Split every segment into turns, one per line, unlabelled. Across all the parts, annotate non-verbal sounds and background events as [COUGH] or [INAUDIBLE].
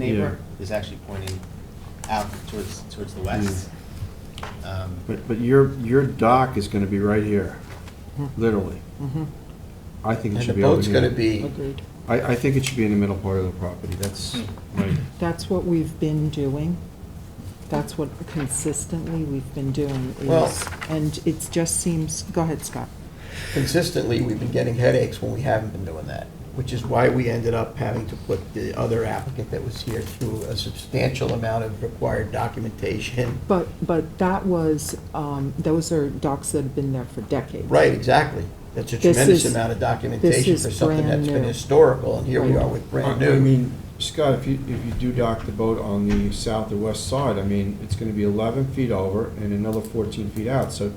neighbor is actually pointing out towards, towards the west.
Mm.
Um,
But, but your, your dock is gonna be right here, literally.
Mm-hmm.
I think it
Hmm. And the
should be over
boat's gonna
here.
be,
Agreed.
I, I think it should be in the middle part of the property, that's
Hmm.
right.
That's what we've been doing. That's what consistently we've been doing
Well-
is, and it just seems, go ahead, Scott.
consistently, we've been getting headaches when we haven't been doing that, which is why we ended up having to put the other applicant that was here through a substantial amount of required documentation.
But, but that was, um, those are docks that have been there for decades.
Right, exactly. That's a
This
tremendous
is-
amount of
this
documentation
is
for something that's
brand
been
new.
historical, and here we
Right.
are with
I
brand
I
new.
mean, Scott, if you, if you do dock the boat on the south or west side, I mean, it's gonna be eleven feet over and another fourteen feet out, so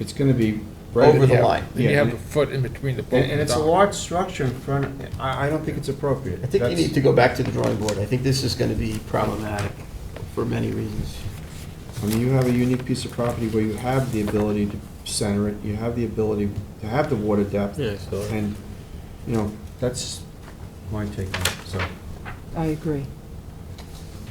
it's gonna be. right
Over the
at-
line.
Then you
Yeah,
have
and,
a foot in between the boat
and
and
it's
the
a
dock.
large structure in front, of- I, I don't think it's appropriate.
I think you
That's-
need to go back to the drawing board. I think this is gonna be problematic for many reasons.
I mean, you have a unique piece of property where you have the ability to center it, you have the ability to have the water depth.
Yeah, so-
And, you know, that's my take on it, so.
I agree.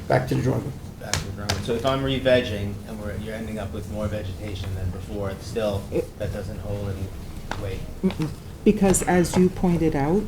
Back to the drawing board.
back to the drawing. So if I'm re-vegging and we're, you're ending up with more vegetation than before, still, that doesn't hold any weight.
Mm-mm. Because as you pointed out,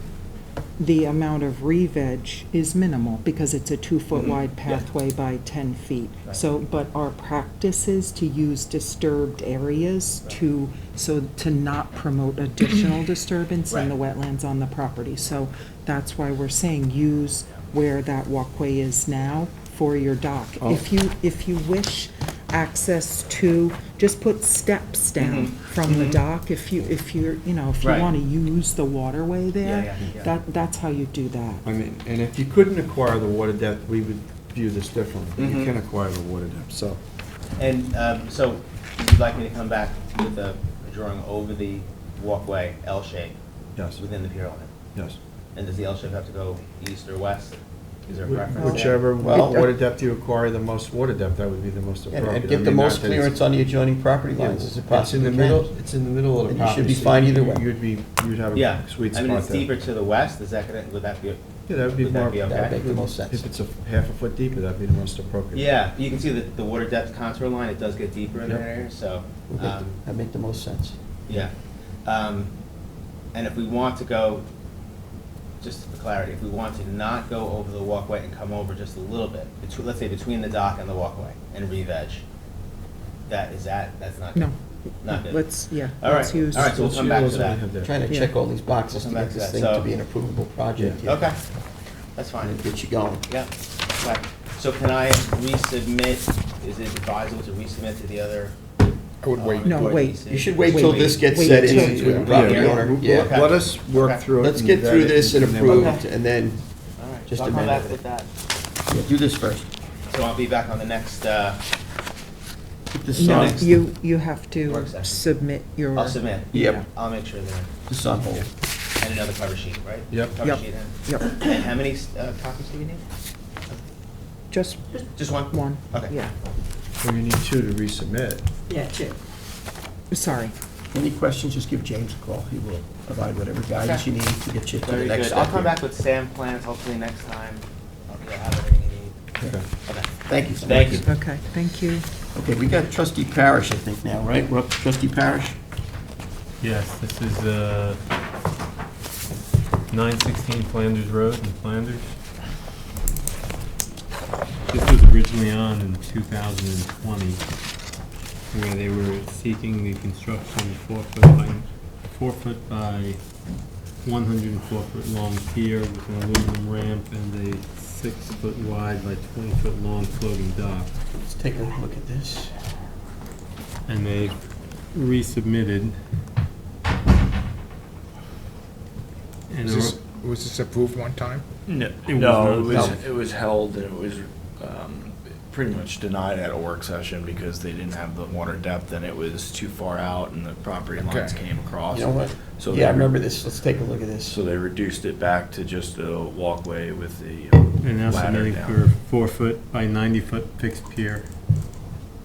the amount of re-veg is minimal because it's a two-foot
Mhm.
wide
Yeah.
pathway by 10 feet.
Right.
So, but our practice is to use disturbed areas
Right.
to, so to not promote additional disturbance in the wetlands on the property. So that's why we're saying use where that walkway is now for your dock.
Oh.
If you, if you wish access to, just put steps down
Mhm.
from the dock if you, if you're, you know, if you
Right.
want to use the waterway
Yeah,
there.
yeah, yeah.
That, that's how you do that.
I mean, and if you couldn't acquire the water depth, we would view this differently. But You
Mhm.
can acquire the water depth, so.
And um, so would you like me to come back with a a drawing over the walkway, L shape,
Yes,
within the pier line?
yes.
And does the L shape have to go east or west? Is there a preference? there?
Whichever
Well-
water depth you acquire, the most water depth, that would be the most
And-
appropriate.
And
I
get the
mean, not
most
that it's-
clearance on the adjoining property
Yeah,
lines as it
It's in
possibly
the
can.
middle, it's in the middle of the
And you should
property.
be
so
fine either way.
You'd be, you'd have
Yeah,
a sweet
I
spot there.
mean, it's deeper to the west, is that gonna, would that be,
Yeah, that would be
Would that
more.
be okay?
That'd make the most sense.
If it's a f- half a foot deeper, that'd be the most appropriate.
yeah, you can see the, the water depth contour line, it does get deeper in that
Yep.
area, so.
Would make-
um,
That'd make the most sense.
Yeah. Um, And if we want to go, just for clarity, if we want to not go over the walkway and come over just a little bit, betw- let's say between the dock and the walkway and re-veg, that, is that, that's not
No.
good? Not good?
Let's, yeah,
All right,
let's use.
all right, so we'll
Those
come back to
yields
that.
we have there.
Trying to
Yeah.
check all these boxes to
Come back
get
to
this
that,
thing
so-
to be an approvable project. yeah.
Okay, that's fine.
And get you going.
Yeah. right. So can I resubmit, is it advisable to resubmit to the other?
I would wait.
uh,
No, wait.
agency?
You should wait till
Wait,
this gets
wait
set
till-
in with the
Yeah.
property
Yeah.
owner,
Okay.
yeah.
Let us work
Okay.
through it.
Let's
and
get
vet
through
it
this and
then we'll-
approve,
Okay.
and then
All right,
Just
so I'll
a
come
minute.
back with that.
do this first.
So I'll be back on the next, uh,
Keep this
No,
on,
next-
you, you have
Work
to
session.
submit your.
I'll submit.
Yep.
I'll make sure that,
this on hold.
and another cover sheet, right?
Yep.
Cover
Yep.
sheet and-
Yep,
And [CLEARS THROAT] how many uh, copies do you need?
just
Just one?
one,
Okay.
yeah,
Well, you need two to resubmit.
Yeah, sure.
sorry.
Any questions, just give James a call. He will provide whatever guidance you need to get you to the
Very
next
good.
step.
I'll come
here.
back with Sam plans hopefully next time. Okay, I'll have everything you need.
Okay.
Okay.
Thank you so much.
Thank you.
Okay, thank you.
Okay, we got trustee Parish, I think, now, right? We're up to trustee Parish?
Yes, this is uh, 916 Flanders Road in Flanders. This was originally on in 2020, where they were seeking the construction of four foot by, four foot by 104 foot long pier with an aluminum ramp and a six foot wide by 20 foot long floating dock.
Let's take a look at this.
And they resubmitted. And
Was this, was this approved one time?
No, it
No, it
was not.
was, it was held and it was um, pretty much denied at a work session because they didn't have the water depth and it was too far out and the property lines
Okay.
came across.
You know what?
So
Yeah, I
they-
remember this. Let's take a look at this.
So they reduced it back to just a walkway with the uh,
And now
ladder
submitting for
down.
four foot by ninety foot fixed pier.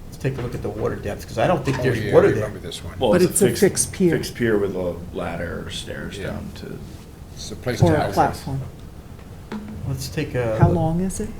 Let's take a look at the water depth, because I don't think
Oh,
there's
yeah,
water
I
there.
Remember this one?
Well,
But it's a fixed pier.
Fixed pier with a ladder or stairs
Yeah.
down to
It's a place to
Or a
house this.
platform.
Let's take a.
How
Uh,
look.
long is it?